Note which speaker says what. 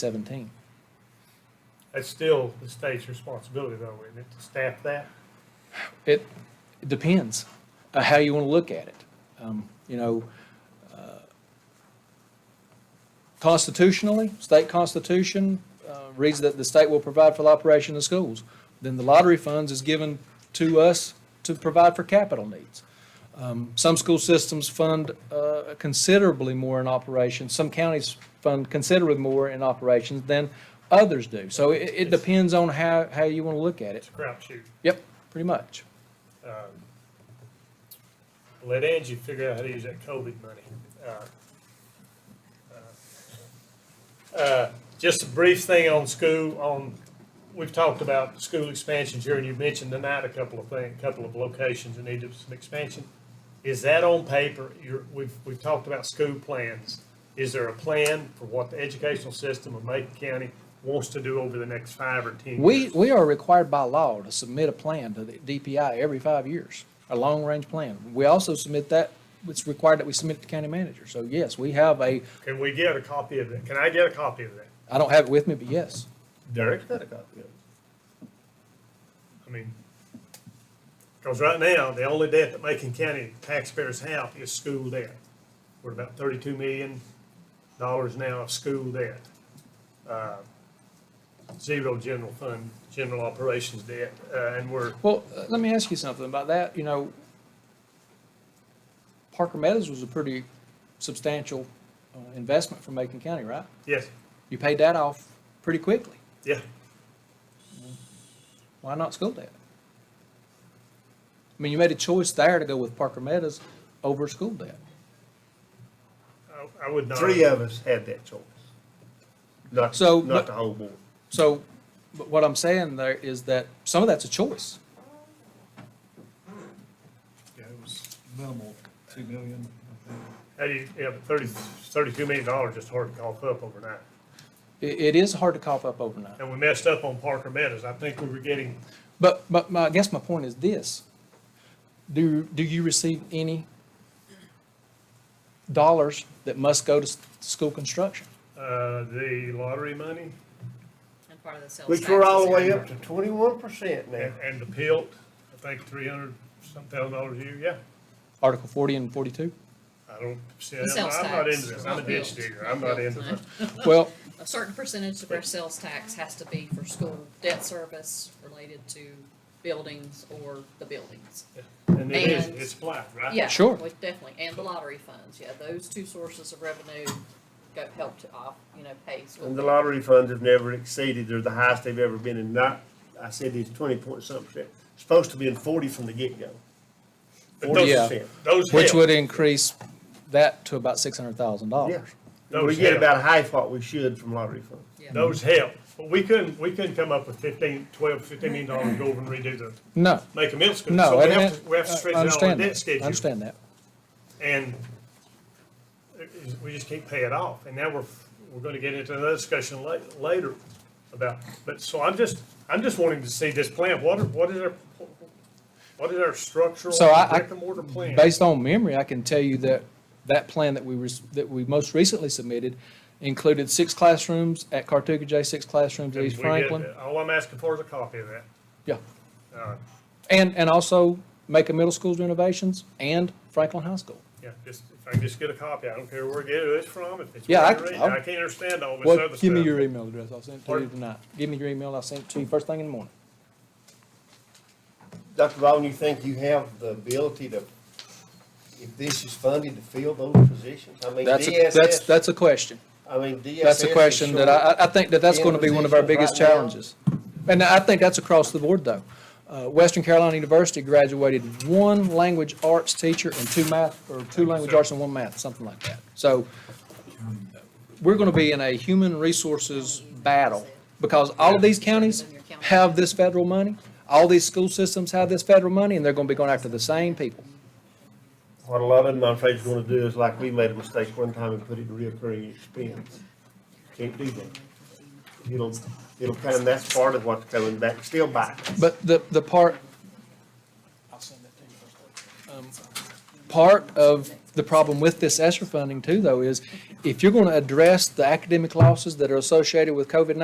Speaker 1: seventeen.
Speaker 2: That's still the state's responsibility though, isn't it, to staff that?
Speaker 1: It depends uh, how you want to look at it. Um, You know, uh, constitutionally, state constitution uh, reads that the state will provide for the operation of schools. Then the lottery funds is given to us to provide for capital needs. Um, Some school systems fund uh, considerably more in operations, some counties fund considerably more in operations than others do. So it, it depends on how, how you want to look at it.
Speaker 2: It's a crap shoot.
Speaker 1: Yep, pretty much.
Speaker 2: Um, Let Angie figure out how to use that COVID money. Uh, uh, uh, Just a brief thing on school, on, we've talked about school expansions here, and you mentioned tonight a couple of things, a couple of locations that need some expansion. Is that on paper? You're, we've, we've talked about school plans. Is there a plan for what the educational system of Macon County wants to do over the next five or ten years?
Speaker 1: We, we are required by law to submit a plan to the DPI every five years, a long-range plan. We also submit that, it's required that we submit to county manager. So yes, we have a,
Speaker 2: Can we get a copy of that? Can I get a copy of that?
Speaker 1: I don't have it with me, but yes.
Speaker 2: Derek's got a copy of it. I mean, because right now, the only debt that Macon County taxpayers have is school debt. We're about thirty-two million dollars now of school debt. Uh, Zero general fund, general operations debt, uh, and we're,
Speaker 1: Well, uh, let me ask you something about that, you know, Parker Meadows was a pretty substantial uh, investment for Macon County, right?
Speaker 2: yes,
Speaker 1: You paid that off pretty quickly.
Speaker 2: yeah,
Speaker 1: Why not school debt? I mean, you made a choice there to go with Parker Meadows over school debt.
Speaker 2: I, I would not.
Speaker 3: Three uh, of us had that choice. Not,
Speaker 1: So, but-
Speaker 3: not the whole board.
Speaker 1: So, but what I'm saying there is that some of that's a choice.
Speaker 4: Yeah, it was minimal, two million, I think.
Speaker 2: How do you, yeah, but thirty, thirty-two million dollars is hard to cough up overnight.
Speaker 1: I- it is hard to cough up overnight.
Speaker 2: And we messed up on Parker Meadows. I think we were getting
Speaker 1: But, but my, I guess my point is this. Do, do you receive any dollars that must go to s- school construction?
Speaker 2: Uh, the lottery money
Speaker 5: And part of the sales
Speaker 3: Which
Speaker 5: tax
Speaker 3: we're
Speaker 5: is
Speaker 3: all the
Speaker 5: in
Speaker 3: way
Speaker 5: there.
Speaker 3: up to twenty-one percent now.
Speaker 2: and, and the pilt, I think three hundred some thousand dollars a year, yeah.
Speaker 1: Article forty and forty-two?
Speaker 2: I don't, see,
Speaker 5: The
Speaker 2: I'm
Speaker 5: sales
Speaker 2: I'm not
Speaker 5: tax,
Speaker 2: into this,
Speaker 5: not
Speaker 2: I'm a ditch
Speaker 5: built,
Speaker 2: digger, I'm not
Speaker 5: built,
Speaker 2: into
Speaker 5: no.
Speaker 2: this.
Speaker 1: Well,
Speaker 5: A certain percentage of our sales tax has to be for school debt service related to buildings or the buildings.
Speaker 2: And it is,
Speaker 5: And-
Speaker 2: it's applied, right?
Speaker 5: Yeah.
Speaker 1: Sure.
Speaker 5: we- Definitely, and the lottery funds, yeah, those two sources of revenue go help to off, you know, pay school.
Speaker 3: And the
Speaker 5: debt.
Speaker 3: lottery funds have never exceeded, they're the highest they've ever been, and not, I said it's twenty point something percent. Supposed to be in forty from the get-go.
Speaker 2: But
Speaker 3: Forty
Speaker 1: Yeah.
Speaker 2: those,
Speaker 3: percent.
Speaker 2: those
Speaker 1: which
Speaker 2: help,
Speaker 1: would increase that to about six hundred thousand
Speaker 3: Yeah.
Speaker 1: dollars.
Speaker 3: And We
Speaker 2: Those
Speaker 3: get
Speaker 2: help.
Speaker 3: about half what we should from lottery funds.
Speaker 5: Yeah.
Speaker 2: those help. But we couldn't, we couldn't come up with fifteen, twelve, fifteen million dollars to go over and redo the,
Speaker 1: No,
Speaker 2: make a middle school.
Speaker 1: no.
Speaker 2: So
Speaker 1: I
Speaker 2: we have
Speaker 1: didn't-
Speaker 2: to, we have
Speaker 1: I-
Speaker 2: to
Speaker 1: I
Speaker 2: stretch out our
Speaker 1: understand
Speaker 2: debt
Speaker 1: that.
Speaker 2: schedule.
Speaker 1: I understand that.
Speaker 2: And it- it's- we just can't pay it off. And now we're, we're gonna get into another discussion la- later about, but, so I'm just, I'm just wanting to see this plan. What, are- what is our, what is our structural
Speaker 1: So I- I-
Speaker 2: brick and mortar plan?
Speaker 1: Based on memory, I can tell you that that plan that we, res- that we most recently submitted included six classrooms at Cartuga J, six classrooms at
Speaker 2: And
Speaker 1: East
Speaker 2: we get
Speaker 1: Franklin.
Speaker 2: that. All I'm asking for is a copy of that.
Speaker 1: Yeah.
Speaker 2: Uh,
Speaker 1: And, and also Macon Middle School's renovations and Franklin High School.
Speaker 2: Yeah, just, if I can just get a copy, I don't care where I get it from, if it's.
Speaker 1: Yeah, I-
Speaker 2: where read it.
Speaker 1: I'll-
Speaker 2: I can't understand all this
Speaker 1: Well,
Speaker 2: other stuff.
Speaker 1: give me your email address. I'll send it to you
Speaker 2: Pardon?
Speaker 1: tonight. Give me your email. and I'll send it to you first thing in the morning.
Speaker 3: Dr. Vaughn, you think you have the ability to, if this is funded, to fill those positions? I mean,
Speaker 1: That's, a- that's,
Speaker 3: DSS,
Speaker 1: that's a question.
Speaker 3: I mean, DSS.
Speaker 1: That's a
Speaker 3: is
Speaker 1: question that
Speaker 3: short.
Speaker 1: I, I- I think that that's
Speaker 3: in
Speaker 1: going to be one of our biggest
Speaker 3: positions right now.
Speaker 1: challenges. And I think that's across the board, though. Uh, Western Carolina University graduated one language arts teacher and two math, or two language
Speaker 2: sir.
Speaker 1: arts and one math, something like that. So we're going to be in a human resources battle because all of these counties have this federal money. All these school systems have this federal money, and they're going to be going after the same people.
Speaker 3: What a lot of them, I'm afraid, is gonna do is like we made a mistake one time and put it in reoccurring expense. Can't do that. It'll, it'll come, that's part of what's coming back, still back.
Speaker 1: But the, the part. Um, Part of the problem with this ESSER funding too, though, is if you're going to address the academic losses that are associated with COVID-19,